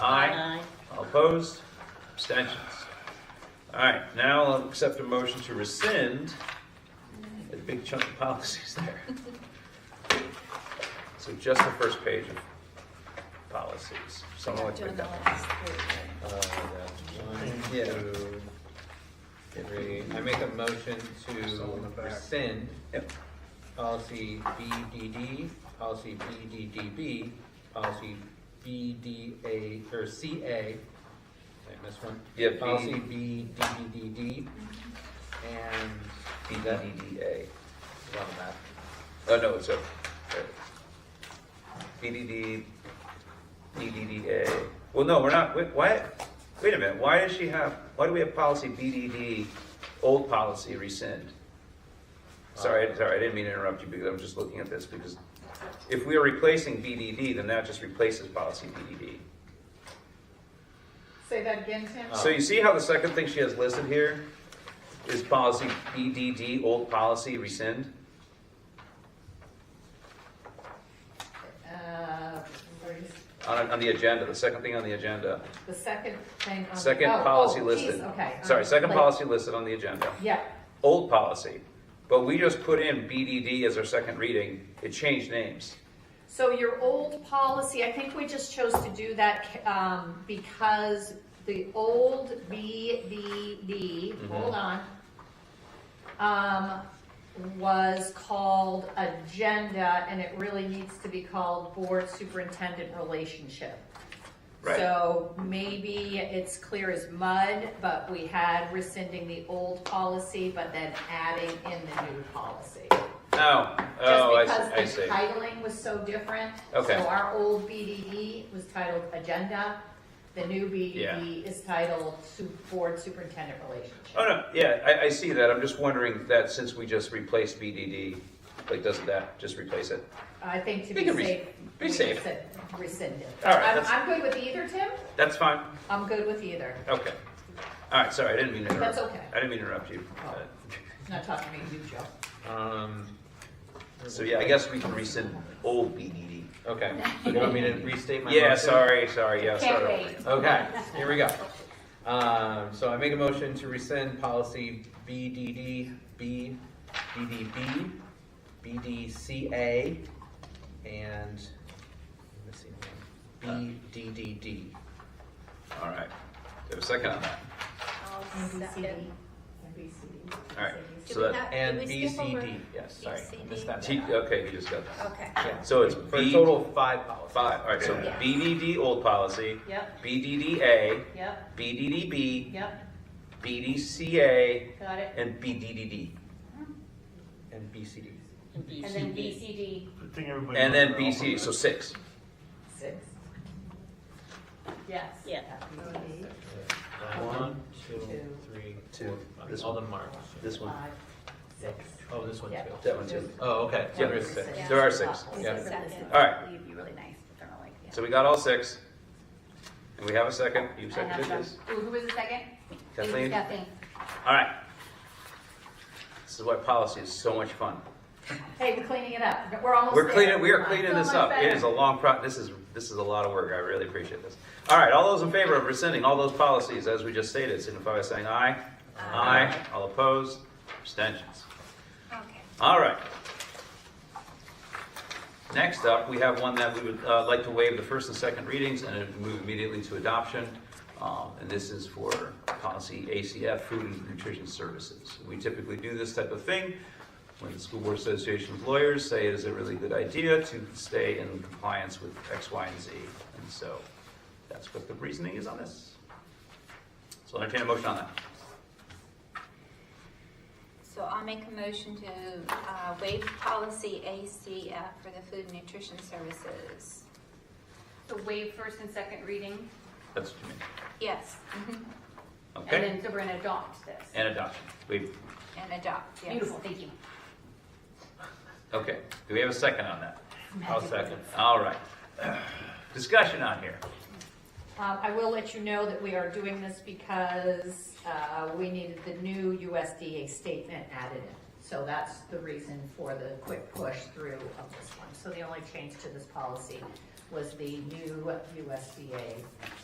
Aye. All opposed? Abstentions? All right, now I'll accept a motion to rescind a big chunk of policies there. So just the first page of policies. Someone would Doing pick the that. last three, right? Uh, that's one, Yeah. two, three. I make a motion to rescind Yep. policy E BDD, policy BDDB, policy BDA, or CA. Did I miss one? Yeah, B- Policy BDDD and BDDA. it's on the back. Oh, no, it's a, BDD, BDDA. Well, no, we're not, wait, why, wait a minute, why does she have, why do we have policy BDD, old policy rescind? Sorry, sorry, I didn't mean to interrupt you because I'm just looking at this because if we are replacing BDD, then that just replaces policy BDD. Say that again, Tim? So you see how the second thing she has listed here is policy BDD, old policy rescind? Uh, where's On, on the agenda, the second thing on the agenda. The second thing on. Second oh, policy oh, listed. geez, Okay. Sorry, um, second like- policy listed on the agenda. Yeah, Old policy. But we just put in BDD as our second reading. It changed names. so your old policy, I think we just chose to do that, um, because the old BDD, hold on, um, was called agenda, and it really needs to be called board superintendent relationship. Right. So maybe it's clear as mud, but we had rescinding the old policy, but then adding in the new policy. Oh, oh, I see, I Just because see. the titling was so different. Okay. So our old BDE was titled agenda, the new BDE is titled su- board superintendent Oh, relationship. no, yeah, I, I see that. I'm just wondering that since we just replaced BDD, like, doesn't that just replace it? I think to We be can res- safe. be we safe. said Rescinded. All right, I'm, that's- I'm good with either, Tim, That's fine. I'm good with either, Okay. All right, sorry, I didn't mean to interrupt. That's okay. I didn't mean to interrupt you. Oh. not talking to you, Joe. Um, So, yeah, I guess we can rescind old BDD. okay, so do you want me to restate my motion? Yeah, sorry, sorry, yeah, Uh, Can't sorry. wait. Okay, here we go. Um, so I make a motion to rescind policy BDD, B, BDB, BDCA, and, I'm missing one, BDDD. All right. Do you have a second on that? Oh, NBCD. All right, so Did we that- have- did And we skip over- BCD, yes, sorry, I missed that. Uh, T- Okay, you just got that. Okay. Yeah. So it's For a B, total of five policies. five, all right, so Yeah. BDD old policy, Yep, BDDA, yep, BDDB, yep, BDCA, got it. and BDDD. And BCD. And then BCD. I think everybody And knows then they're all BC, so six. Six. Yes. Yeah. Happy One, two, Two. three, Two. four, This five, all the marks. This one, Five, six. Oh, this one Yeah. too. that one too. Oh, okay, so Yeah. there's six. Six. There are six. Yeah. All right. You'd be really nice, but they're not like, yeah. So we got all six. And we have a second. You I have seconded them. this. Who who was the second? Kathleen? Kathleen. All right. This is why policy is so much fun. Hey, we're cleaning it up. We're almost We're there. cleaning, we are cleaning So this much up. It better. is a long pro, this is, this is a lot of work. I really appreciate this. All right, all those in favor of rescinding all those policies, as we just stated, signify by saying aye. Aye. All opposed, abstentions. Okay. All right. Next up, we have one that we would uh, like to waive the first and second readings and move immediately to adoption. Um, And this is for policy ACF, food and nutrition services. We typically do this type of thing when the School Board Association of Lawyers say it is a really good idea to stay in compliance with X, Y, and Z. And so that's what the reasoning is on this. So I'll entertain a motion on that. So I'll make a motion to uh, waive policy ACF for the food and nutrition services. So waive first and second reading, That's what you mean. Yes, Okay? and then so we're gonna adopt this. And adoption. Waive and adopt, yes. Beautiful, thank you. Okay, do we have a second on that? I'll second. All right. Discussion on here. Um, I will let you know that we are doing this because, uh, we needed the new USDA statement added in. So that's the reason for the quick push through of this one. So the only change to this policy was the new USDA